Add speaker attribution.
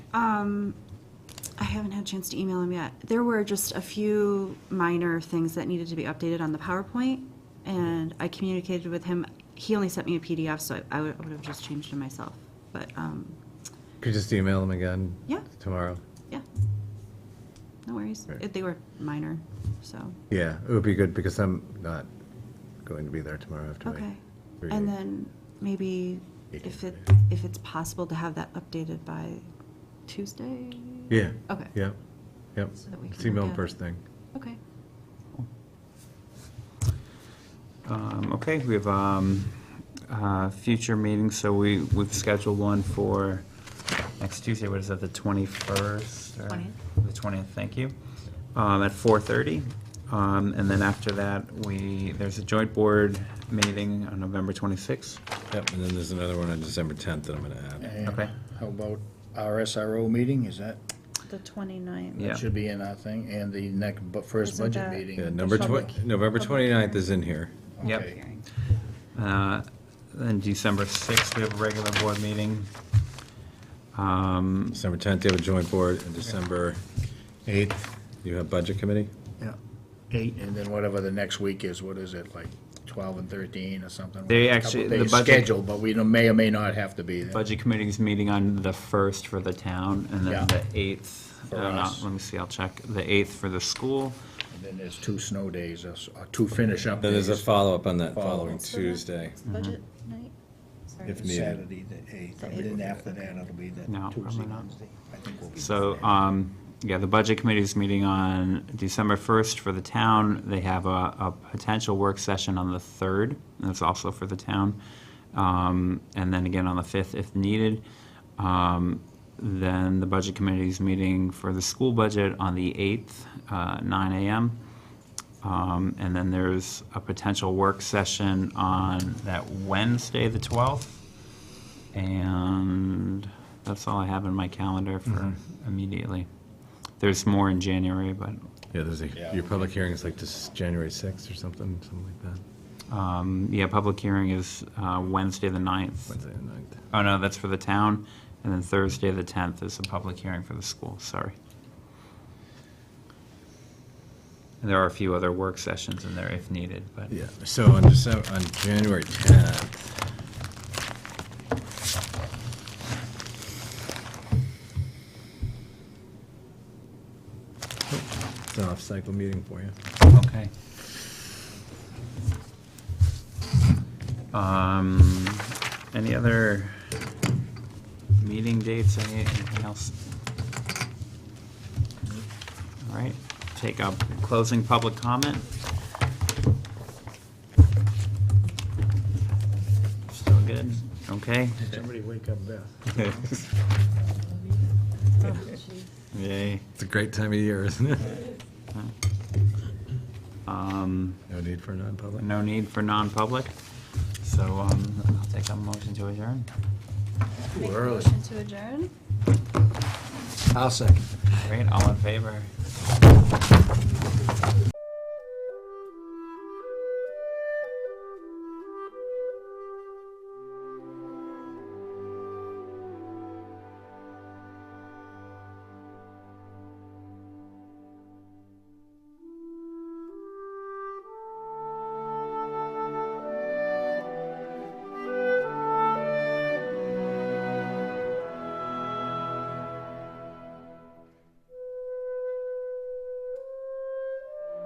Speaker 1: Um, I haven't had a chance to email him yet. There were just a few minor things that needed to be updated on the PowerPoint, and I communicated with him. He only sent me a PDF, so I, I would, I would have just changed it myself. But, um,
Speaker 2: Could just email them again.
Speaker 1: Yeah.
Speaker 2: Tomorrow.
Speaker 1: yeah. No worries.
Speaker 2: Right.
Speaker 1: It- They were minor, so,
Speaker 2: Yeah, it would be good because I'm not going to be there tomorrow after. my
Speaker 1: okay.
Speaker 2: three
Speaker 1: And
Speaker 2: days.
Speaker 1: then maybe if it, if it's possible to have that updated by Tuesday?
Speaker 2: Yeah.
Speaker 1: Okay.
Speaker 2: Yep, yep.
Speaker 1: So that we
Speaker 2: Just
Speaker 1: can
Speaker 2: email
Speaker 1: look
Speaker 2: them
Speaker 1: at
Speaker 2: first
Speaker 1: it.
Speaker 2: thing.
Speaker 1: Okay.
Speaker 3: Um, Okay, we have um, uh, future meetings, so we, we've scheduled one for next Tuesday, what is that, the 21st? or-
Speaker 4: 20th.
Speaker 3: The 20th, thank you, um, at 4:30. Um, And then after that, we, there's a joint board meeting on November 26th.
Speaker 2: Yep, and then there's another one on December 10th that I'm going to add.
Speaker 5: And
Speaker 3: Okay.
Speaker 5: How about our SRO meeting, is that,
Speaker 1: The 29th.
Speaker 3: Yeah.
Speaker 5: that should be in our thing, and the next, bu- first
Speaker 1: Isn't
Speaker 5: budget
Speaker 1: that-
Speaker 5: meeting?
Speaker 2: Yeah, November
Speaker 1: Public-
Speaker 2: twen- November
Speaker 1: public
Speaker 2: 29th
Speaker 1: hearing.
Speaker 2: is in here.
Speaker 3: Yep.
Speaker 5: Okay.
Speaker 3: Uh, Then December 6th, we have a regular board meeting. Um,
Speaker 2: December 10th, you have a joint board, and December 8th, you have budget committee?
Speaker 5: Yeah, eight, and then whatever the next week is, what is it, like twelve and thirteen or something?
Speaker 3: They
Speaker 5: A couple
Speaker 3: actually- the
Speaker 5: days
Speaker 3: budget-
Speaker 5: Scheduled, but we don't- may or may not have to be there.
Speaker 3: Budget Committee's meeting on the 1st for the town, and
Speaker 5: Yeah.
Speaker 3: then the 8th,
Speaker 5: For
Speaker 3: uh, no,
Speaker 5: us.
Speaker 3: let me see, I'll check, the 8th for the school.
Speaker 5: And then there's two snow days, or s- or two finish up
Speaker 2: Then
Speaker 5: days.
Speaker 2: there's a follow-up on that
Speaker 5: Follow-up.
Speaker 2: following Tuesday. Mm-hmm.
Speaker 1: Budget night? Sorry.
Speaker 2: If needed.
Speaker 5: Saturday, the eighth, and then after that, it'll be the
Speaker 3: No,
Speaker 5: Tuesday,
Speaker 3: probably not.
Speaker 5: Wednesday. I think we'll be
Speaker 3: So,
Speaker 5: there.
Speaker 3: um, yeah, the Budget Committee's meeting on December 1st for the town. They have a, a potential work session on the 3rd, and that's also for the town. Um, And then again on the 5th if needed. Um, Then the Budget Committee's meeting for the school budget on the 8th, uh, 9 AM. Um, And then there's a potential work session on that Wednesday, the 12th. And that's all I have in my calendar for immediately. There's more in January, but
Speaker 2: Yeah, there's a,
Speaker 5: Yeah.
Speaker 2: your public hearing is like just January 6th or something, something like that,
Speaker 3: um, yeah, public hearing is uh, Wednesday, the 9th.
Speaker 2: Wednesday the 9th.
Speaker 3: Oh, no, that's for the town. And then Thursday, the 10th is a public hearing for the school, sorry. And there are a few other work sessions in there if needed, but.
Speaker 2: Yeah, so on December, on January 10th. It's an off-cycle meeting for you.
Speaker 3: Okay. Um, any other meeting dates, Any- anything else? All right, take up closing public comment. Still good? Okay.
Speaker 5: Somebody wake up Beth.
Speaker 3: Yay.
Speaker 2: It's a great time of year, isn't it?
Speaker 3: Um,
Speaker 2: No need for non-public.
Speaker 3: no need for non-public, so, um, I'll take a motion to adjourn.
Speaker 1: Make a motion to adjourn?
Speaker 5: I'll second.
Speaker 3: Great, all in favor?